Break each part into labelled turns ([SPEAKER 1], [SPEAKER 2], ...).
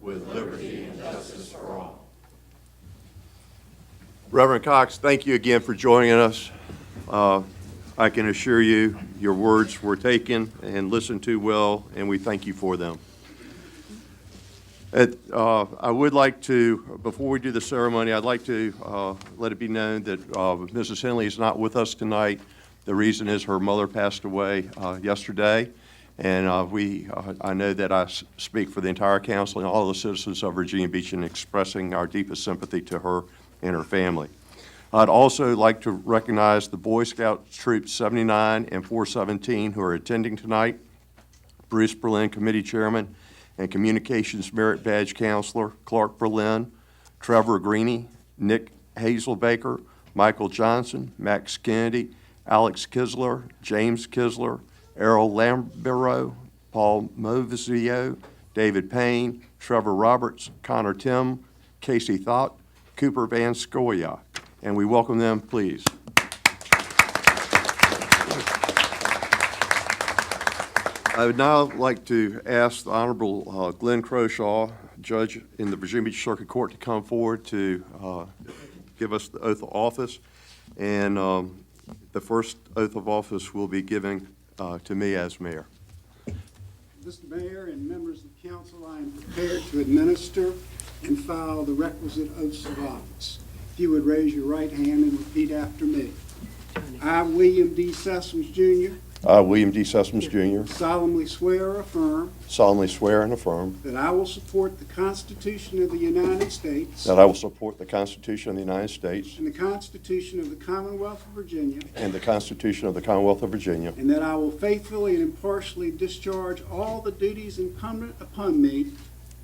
[SPEAKER 1] with liberty and justice for all. Reverend Cox, thank you again for joining us. Uh, I can assure you, your words were taken and listened to well, and we thank you for them. At, uh, I would like to, before we do the ceremony, I'd like to uh, let it be known that uh, Mrs. Henley is not with us tonight. The reason is her mother passed away uh, yesterday, and uh, we, uh, I know that I s- speak for the entire council and all the citizens of Virginia Beach in expressing our deepest sympathy to her and her family. I'd also like to recognize the Boy Scout Troop 79 and 417 who are attending tonight. Bruce Berlin, Committee Chairman, and Communications Merit Badge Counselor, Clark Berlin, Trevor Greeny, Nick Hazelbaker, Michael Johnson, Max Kennedy, Alex Kisler, James Kisler, Errol Lambero, Paul Movizio, David Payne, Trevor Roberts, Connor Tim, Casey Thought, Cooper Van Scoya. And we welcome them, please. I would now like to ask the Honorable uh, Glenn Croshaw, Judge in the Virginia Beach Circuit Court, to come forward to uh, give us the oath of office. And um, the first oath of office will be given uh, to me as mayor.
[SPEAKER 2] Mr. Mayor and members of council, I am prepared to administer and file the requisite oaths of office. If you would raise your right hand and repeat after me. I, William D. Sessoms Jr.,
[SPEAKER 1] I, William D. Sessoms Jr.,
[SPEAKER 2] solemnly swear or affirm
[SPEAKER 1] solemnly swear and affirm
[SPEAKER 2] that I will support the Constitution of the United States
[SPEAKER 1] that I will support the Constitution of the United States
[SPEAKER 2] and the Constitution of the Commonwealth of Virginia,
[SPEAKER 1] and the Constitution of the Commonwealth of Virginia,
[SPEAKER 2] and that I will faithfully and impartially discharge all the duties incumbent upon me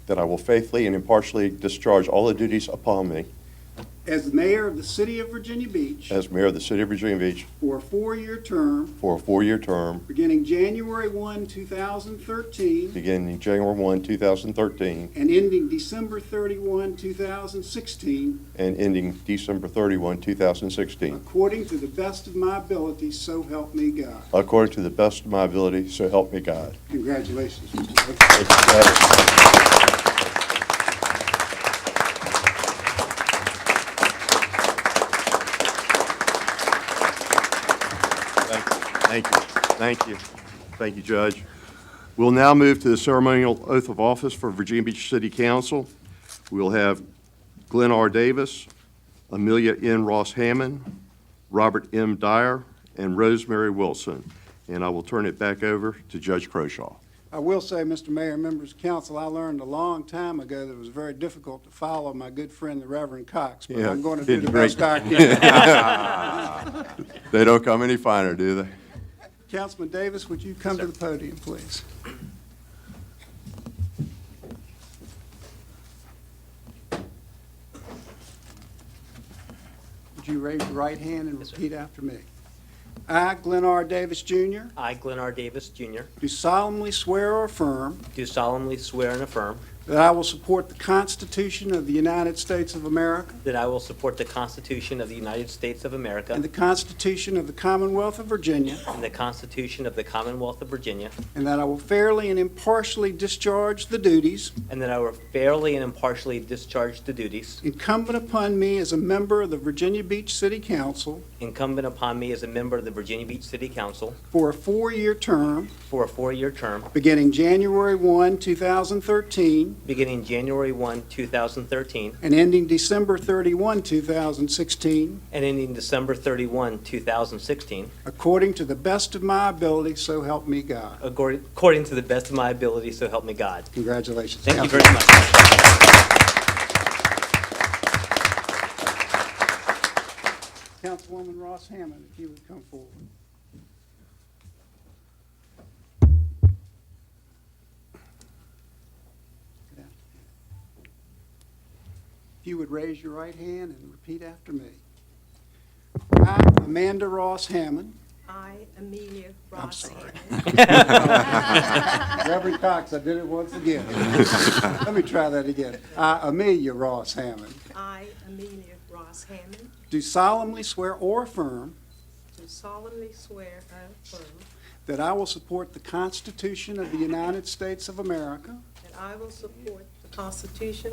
[SPEAKER 1] that I will faithfully and impartially discharge all the duties upon me
[SPEAKER 2] as mayor of the city of Virginia Beach
[SPEAKER 1] as mayor of the city of Virginia Beach
[SPEAKER 2] for a four-year term
[SPEAKER 1] for a four-year term
[SPEAKER 2] beginning January 1, 2013,
[SPEAKER 1] beginning January 1, 2013,
[SPEAKER 2] and ending December 31, 2016,
[SPEAKER 1] and ending December 31, 2016,
[SPEAKER 2] according to the best of my ability, so help me God.
[SPEAKER 1] according to the best of my ability, so help me God.
[SPEAKER 2] Congratulations. Mr. Baker.
[SPEAKER 1] Thank you, Chad. Thank you, thank you, thank you, Judge. We'll now move to the ceremonial oath of office for Virginia Beach City Council. We'll have Glenn R. Davis, Amelia N. Ross Hammond, Robert M. Dyer, and Rosemary Wilson. And I will turn it back over to Judge Croshaw.
[SPEAKER 2] I will say, Mr. Mayor, members of council, I learned a long time ago that it was very difficult to follow my good friend, the Reverend Cox, but
[SPEAKER 1] Yeah,
[SPEAKER 2] I'm going to do the
[SPEAKER 1] didn't break.
[SPEAKER 2] best I can.
[SPEAKER 1] They don't come any finer, do they?
[SPEAKER 2] Councilman Davis, would you come to the podium, please? Would you raise your right hand and
[SPEAKER 3] Yes, sir.
[SPEAKER 2] repeat after me? I, Glenn R. Davis Jr.,
[SPEAKER 3] I, Glenn R. Davis, Jr.,
[SPEAKER 2] do solemnly swear or affirm
[SPEAKER 3] do solemnly swear and affirm
[SPEAKER 2] that I will support the Constitution of the United States of America
[SPEAKER 3] that I will support the Constitution of the United States of America
[SPEAKER 2] and the Constitution of the Commonwealth of Virginia,
[SPEAKER 3] and the Constitution of the Commonwealth of Virginia,
[SPEAKER 2] and that I will fairly and impartially discharge the duties
[SPEAKER 3] and that I will fairly and impartially discharge the duties
[SPEAKER 2] incumbent upon me as a member of the Virginia Beach City Council
[SPEAKER 3] incumbent upon me as a member of the Virginia Beach City Council
[SPEAKER 2] for a four-year term
[SPEAKER 3] for a four-year term
[SPEAKER 2] beginning January 1, 2013,
[SPEAKER 3] beginning January 1, 2013,
[SPEAKER 2] and ending December 31, 2016,
[SPEAKER 3] and ending December 31, 2016,
[SPEAKER 2] according to the best of my ability, so help me God.
[SPEAKER 3] according according to the best of my ability, so help me God.
[SPEAKER 2] Congratulations.
[SPEAKER 3] Thank you
[SPEAKER 2] Councilman.
[SPEAKER 3] very much.
[SPEAKER 2] Councilwoman Ross Hammond, if you would come forward. If you would raise your right hand and repeat after me. I, Amanda Ross Hammond,
[SPEAKER 4] I, Amelia
[SPEAKER 2] I'm
[SPEAKER 4] Rossi.
[SPEAKER 2] sorry. Reverend Cox, I did it once again. Let me try that again. I, Amelia Ross Hammond,
[SPEAKER 4] I, Amelia Ross Hammond,
[SPEAKER 2] do solemnly swear or affirm
[SPEAKER 4] do solemnly swear and affirm
[SPEAKER 2] that I will support the Constitution of the United States of America
[SPEAKER 4] that I will support the Constitution